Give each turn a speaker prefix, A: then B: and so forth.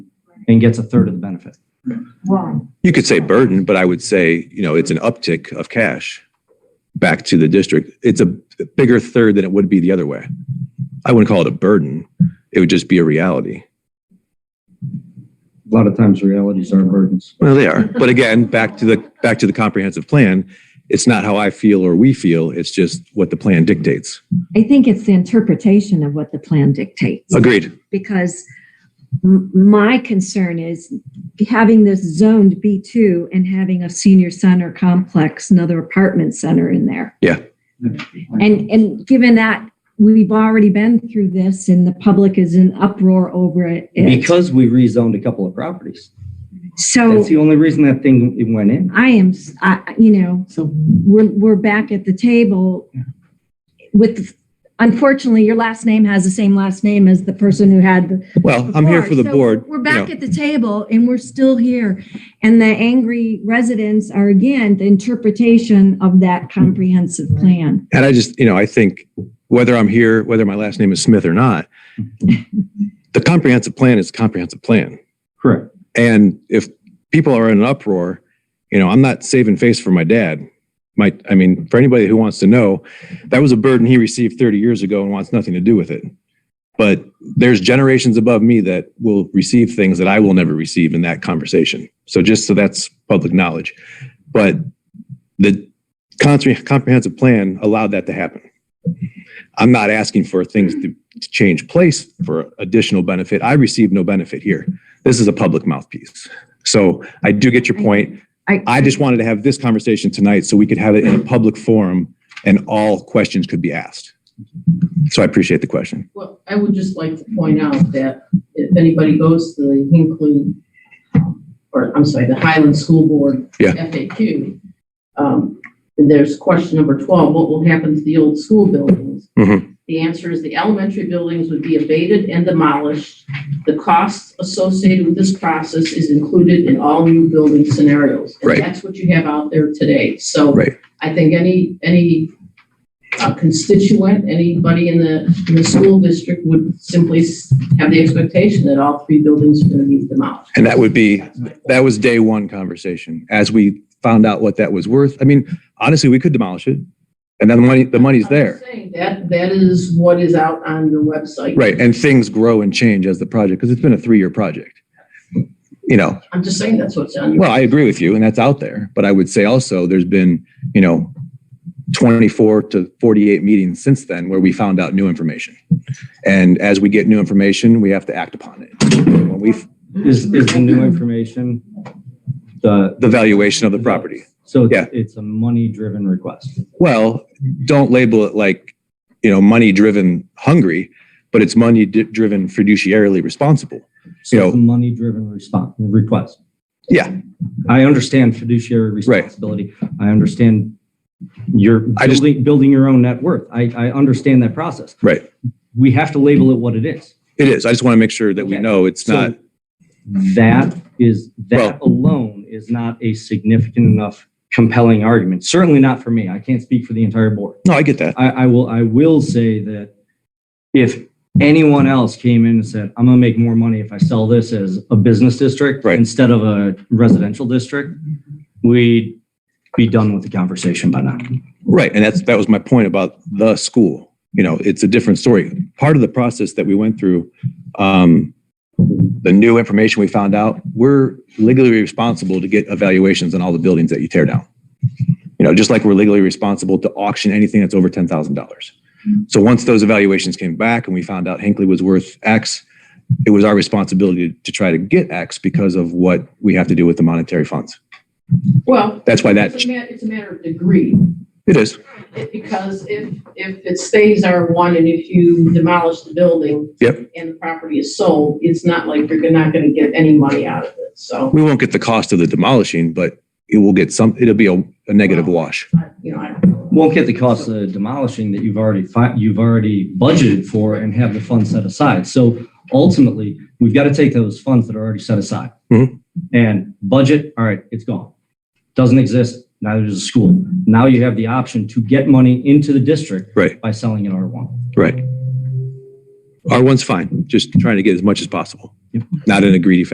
A: and gets a third of the benefit.
B: Why?
C: You could say burden, but I would say, you know, it's an uptick of cash back to the district. It's a bigger third than it would be the other way. I wouldn't call it a burden. It would just be a reality.
A: A lot of times realities are burdens.
C: Well, they are. But again, back to the, back to the comprehensive plan, it's not how I feel or we feel. It's just what the plan dictates.
B: I think it's the interpretation of what the plan dictates.
C: Agreed.
B: Because m- my concern is having this zoned B2 and having a senior center complex, another apartment center in there. And, and given that we've already been through this and the public is in uproar over it.
A: Because we rezoned a couple of properties.
B: So Oh.
A: That's the only reason that thing it went in.
B: I am, s- I- I- you know,
A: So
B: we're, we're back at the table with, unfortunately, your last name has the same last name as the person who had the
C: Well, I'm here for the
B: So
C: board.
B: We're
C: you
B: back
C: know.
B: at the table and we're still here. And the angry residents are again, the interpretation of that comprehensive plan.
C: And I just, you know, I think whether I'm here, whether my last name is Smith or not, the comprehensive plan is a comprehensive plan.
A: Correct.
C: And if people are in an uproar, you know, I'm not saving face for my dad. My, I mean, for anybody who wants to know, that was a burden he received 30 years ago and wants nothing to do with it. But there's generations above me that will receive things that I will never receive in that conversation. So just so that's public knowledge. But the compre- comprehensive plan allowed that to happen. I'm not asking for things to, to change place for additional benefit. I received no benefit here this is a public mouthpiece. So I do get your point.
B: I-
C: I just wanted to have this conversation tonight so we could have it in a public forum and all questions could be asked. So I appreciate the question.
D: Well, I would just like to point out that if anybody goes to the Hinkley, or I'm sorry, the Highland School Board
C: Yeah.
D: FAQ, um, and there's question number 12, what will happen to the old school buildings?
C: Mhm.
D: The answer is the elementary buildings would be abated and demolished. The costs associated with this process is included in all new building scenarios.
C: Right.
D: And that's what you have out there today. So
C: Right.
D: I think any, any uh, constituent, anybody in the, in the school district would simply s- have the expectation that all three buildings are going to be demolished.
C: And that would be, that was day one conversation. As we found out what that was worth, I mean, honestly, we could demolish it. And then the money, the money's there.
D: I'm saying That, that is what is out on your website.
C: Right. And things grow and change as the project, because it's been a three-year project. You know,
D: I'm just saying that's what's on your.
C: Well, I agree with you, and that's out there. But I would say also, there's been, you know, 24 to 48 meetings since then where we found out new information. And as we get new information, we have to act upon it. When we,
A: is, is the new information, the,
C: the valuation of the property.
A: so
C: Yeah.
A: it's, it's a money-driven request.
C: Well, don't label it like, you know, money-driven hungry, but it's money-driven fiduciarily responsible.
A: So it's a
C: know-
A: money-driven response, request.
C: Yeah.
A: I understand fiduciary responsibility. I understand your
C: I just-
A: building, building your own net worth. I, I understand that process.
C: Right.
A: We have to label it what it is.
C: It is. I just want to make sure that we
A: Okay.
C: know it's
A: So
C: not,
A: That is, that alone is not a significant enough compelling argument. Certainly not for me. I can't speak for the entire board.
C: no, I get that.
A: I, I will, I will say that if anyone else came in and said, I'm gonna make more money if I sell this as a business district
C: Right.
A: instead of a residential district, we'd be done with the conversation by now.
C: Right, and that's, that was my point about the school. You know, it's a different story. Part of the process that we went through, um, the new information we found out, we're legally responsible to get evaluations on all the buildings that you tear down. You know, just like we're legally responsible to auction anything that's over ten thousand dollars. So once those evaluations came back and we found out Hinckley was worth X, it was our responsibility to try to get X because of what we have to do with the monetary funds.
D: Well,
C: That's why that,
D: it's a ma- it's a matter of degree.
C: it is,
D: It- Because if, if it stays R1 and if you demolish the building.
C: Yep.
D: And the property is sold, it's not like you're not going to get any money out of it. So,
C: we won't get the cost of the demolishing, but it will get some, it'll be a, a negative wash.
D: I- you know, I don't know.
A: Won't get the cost of demolishing that you've already, fi- you've already budgeted for and have the funds set aside. So ultimately, we've got to take those funds that are already set aside
C: Mhm.
A: and budget, all right, it's gone. Doesn't exist, neither does the school. Now you have the option to get money into the district
C: Right.
A: by selling an R1.
C: Right. R one's fine, just trying to get as much as possible,
A: Yep.
C: not in a greedy fashion.